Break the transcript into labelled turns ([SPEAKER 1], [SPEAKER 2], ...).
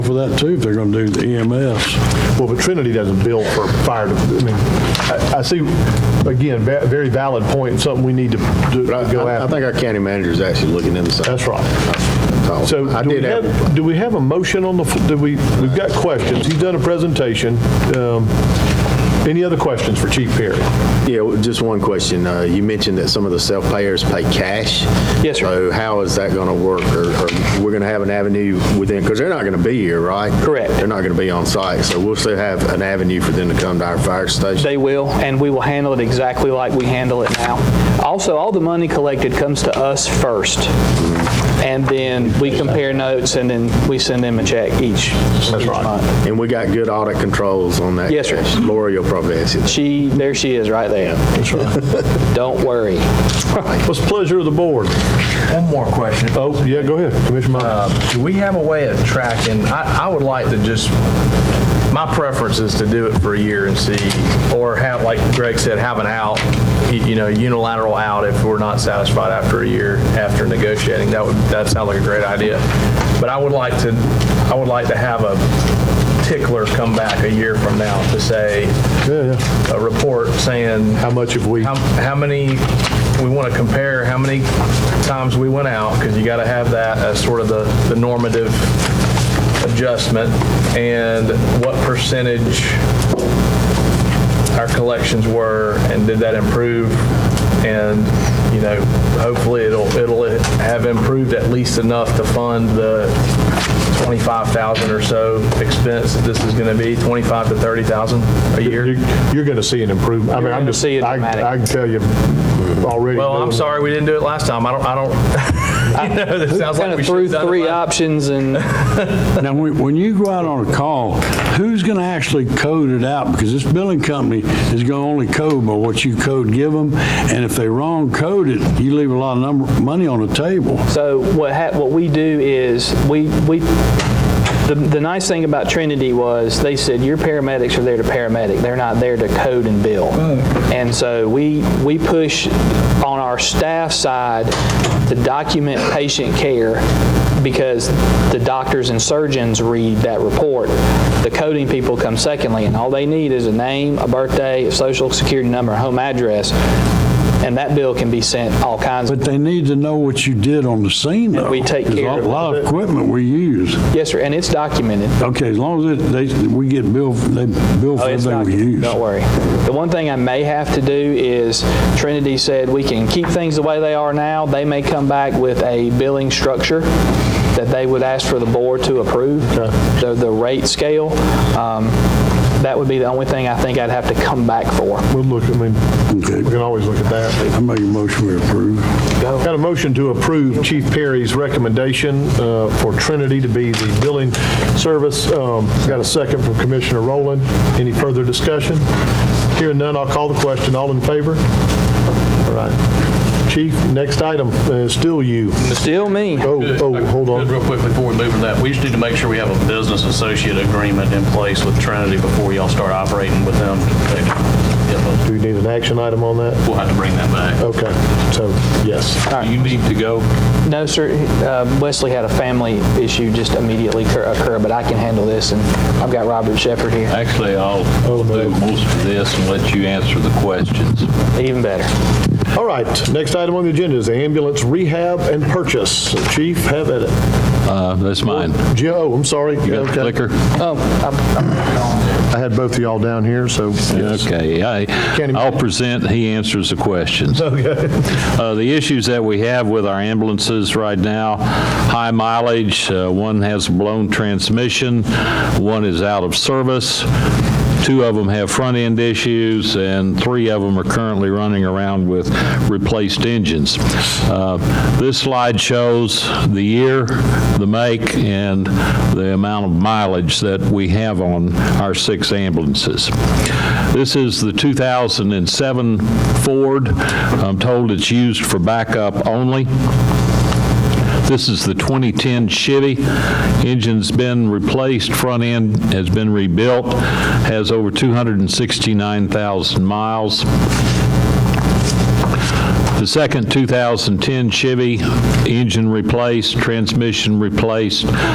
[SPEAKER 1] for that too, if they're gonna do the E EMS.
[SPEAKER 2] Well, but Trinity doesn't bill for fire, de- I mean, I- I see, again, ve- very valid point, something we need to do-
[SPEAKER 3] I
[SPEAKER 2] go
[SPEAKER 3] I
[SPEAKER 2] after.
[SPEAKER 3] think our county manager is actually looking inside.
[SPEAKER 2] That's right. So
[SPEAKER 3] I
[SPEAKER 2] do we
[SPEAKER 3] did have,
[SPEAKER 2] have, do we have a motion on the, f- do we, we've got questions. He's done a presentation. Um, Any other questions for Chief Perry?
[SPEAKER 3] yeah, just one question. Uh, You mentioned that some of the self-payers pay cash.
[SPEAKER 4] Yes, sir.
[SPEAKER 3] So how is that going to work? Or or we're going to have an avenue within, because they're not going to be here, right?
[SPEAKER 4] Correct.
[SPEAKER 3] They're not going to be on site, so we'll still have an avenue for them to come to our fire station.
[SPEAKER 4] They will, and we will handle it exactly like we handle it now. Also, all the money collected comes to us first, and then we compare notes, and then we send them a check each each month.
[SPEAKER 3] And we got good audit controls on that.
[SPEAKER 4] Yes, sir.
[SPEAKER 3] cash. Lori will probably answer that.
[SPEAKER 4] She, there she is, right there. That's right. Don't worry.
[SPEAKER 2] What's the pleasure of the board?
[SPEAKER 5] One more question.
[SPEAKER 2] Oh, yeah, go ahead, Commissioner Miles.
[SPEAKER 5] Uh, Do we have a way of tracking, I, I would like to just, my preference is to do it for a year and see, or have, like Greg said, have an out, y- you know, unilateral out if we're not satisfied after a year, after negotiating. That would, that sounds like a great idea. But I would like to, I would like to have a tickler come back a year from now to say,
[SPEAKER 2] Yeah, yeah.
[SPEAKER 5] a report saying,
[SPEAKER 2] How much have we?
[SPEAKER 5] how, how many, we want to compare how many times we went out, because you got to have that as sort of the, the normative adjustment, and what percentage our collections were, and did that improve? And, you know, hopefully it'll, it'll have improved at least enough to fund the 25,000 or so expense that this is going to be, 25 to 30,000 a year?
[SPEAKER 2] You're, you're going to see an improvement. I mean, I'm
[SPEAKER 4] gonna
[SPEAKER 2] just,
[SPEAKER 4] see a
[SPEAKER 2] I
[SPEAKER 4] dramatic-
[SPEAKER 2] I can tell you already.
[SPEAKER 5] Well, I'm
[SPEAKER 2] knowing-
[SPEAKER 5] sorry we didn't do it last time. I don't, I don't, you know, that sounds
[SPEAKER 4] Kind
[SPEAKER 5] like we
[SPEAKER 4] of
[SPEAKER 5] should
[SPEAKER 4] through
[SPEAKER 5] have done it
[SPEAKER 4] three
[SPEAKER 5] last-
[SPEAKER 4] options, and
[SPEAKER 1] Now, when, when you go out on a call, who's gonna actually code it out? Because this billing company is gonna only code by what you code give them, and if they wrong code it, you leave a lot of number, money on the table.
[SPEAKER 4] So what ha- what we do is we we the, the nice thing about Trinity was they said your paramedics are there to paramedic. They're not there to code and bill. And so we we push on our staff side to document patient care because the doctors and surgeons read that report. The coding people come secondly, and all they need is a name, a birthday, a social security number, a home address, and that bill can be sent all kinds of
[SPEAKER 1] But they need to know what you did on the scene, though.
[SPEAKER 4] we take
[SPEAKER 1] There's
[SPEAKER 4] care of
[SPEAKER 1] A lot of equipment we use.
[SPEAKER 4] Yes, sir, and it's documented.
[SPEAKER 1] Okay, as long as it- they, we get billed, they bill
[SPEAKER 4] Oh,
[SPEAKER 1] for
[SPEAKER 4] it's
[SPEAKER 1] everything we
[SPEAKER 4] documented.
[SPEAKER 1] use.
[SPEAKER 4] Don't worry. The one thing I may have to do is Trinity said we can keep things the way they are now. They may come back with a billing structure that they would ask for the board to approve, the, the rate scale. Um, That would be the only thing I think I'd have to come back for.
[SPEAKER 2] We'll look, I mean, we
[SPEAKER 1] Okay,
[SPEAKER 2] can always look at that.
[SPEAKER 1] I make a motion we approve.
[SPEAKER 2] Got a motion to approve Chief Perry's recommendation uh, for Trinity to be the billing service. Um, Got a second from Commissioner Rowland. Any further discussion? Hearing none, I'll call the question. All in favor? All right. Chief, next item, uh, still you.
[SPEAKER 4] Still me.
[SPEAKER 2] Oh, oh, hold on.
[SPEAKER 6] Just Real quick before we move to that, we just need to make sure we have a business associate agreement in place with Trinity before y'all start operating with them.
[SPEAKER 2] Do you need an action item on that?
[SPEAKER 6] We'll have to bring that back.
[SPEAKER 2] Okay, so, yes.
[SPEAKER 6] You need to go.
[SPEAKER 4] No, sir, uh, Wesley had a family issue just immediately occur- occur, but I can handle this, and I've got Robert Shepherd here,
[SPEAKER 7] Actually, I'll
[SPEAKER 2] Oh, no.
[SPEAKER 7] do most of this and let you answer the questions.
[SPEAKER 4] even better.
[SPEAKER 2] All right, next item on the agenda is ambulance rehab and purchase. Chief, have at it.
[SPEAKER 7] Uh, That's mine.
[SPEAKER 2] Joe, oh, I'm sorry.
[SPEAKER 7] You got the
[SPEAKER 2] Okay.
[SPEAKER 7] clicker?
[SPEAKER 4] Oh, I'm-
[SPEAKER 2] I had both of y'all down here, so. yes.
[SPEAKER 7] Okay, I-
[SPEAKER 2] Can't
[SPEAKER 7] I'll
[SPEAKER 2] imagine.
[SPEAKER 7] present, he answers the questions.
[SPEAKER 2] Okay.
[SPEAKER 7] Uh, The issues that we have with our ambulances right now, high mileage, uh, one has blown transmission, one is out of service, two of them have front-end issues, and three of them are currently running around with replaced engines. Uh, This slide shows the year, the make, and the amount of mileage that we have on our six ambulances. This is the 2007 Ford. I'm told it's used for backup only. This is the 2010 Chevy. Engine's been replaced, front end has been rebuilt, has over 269,000 miles. The second 2010 Chevy, engine replaced, transmission replaced,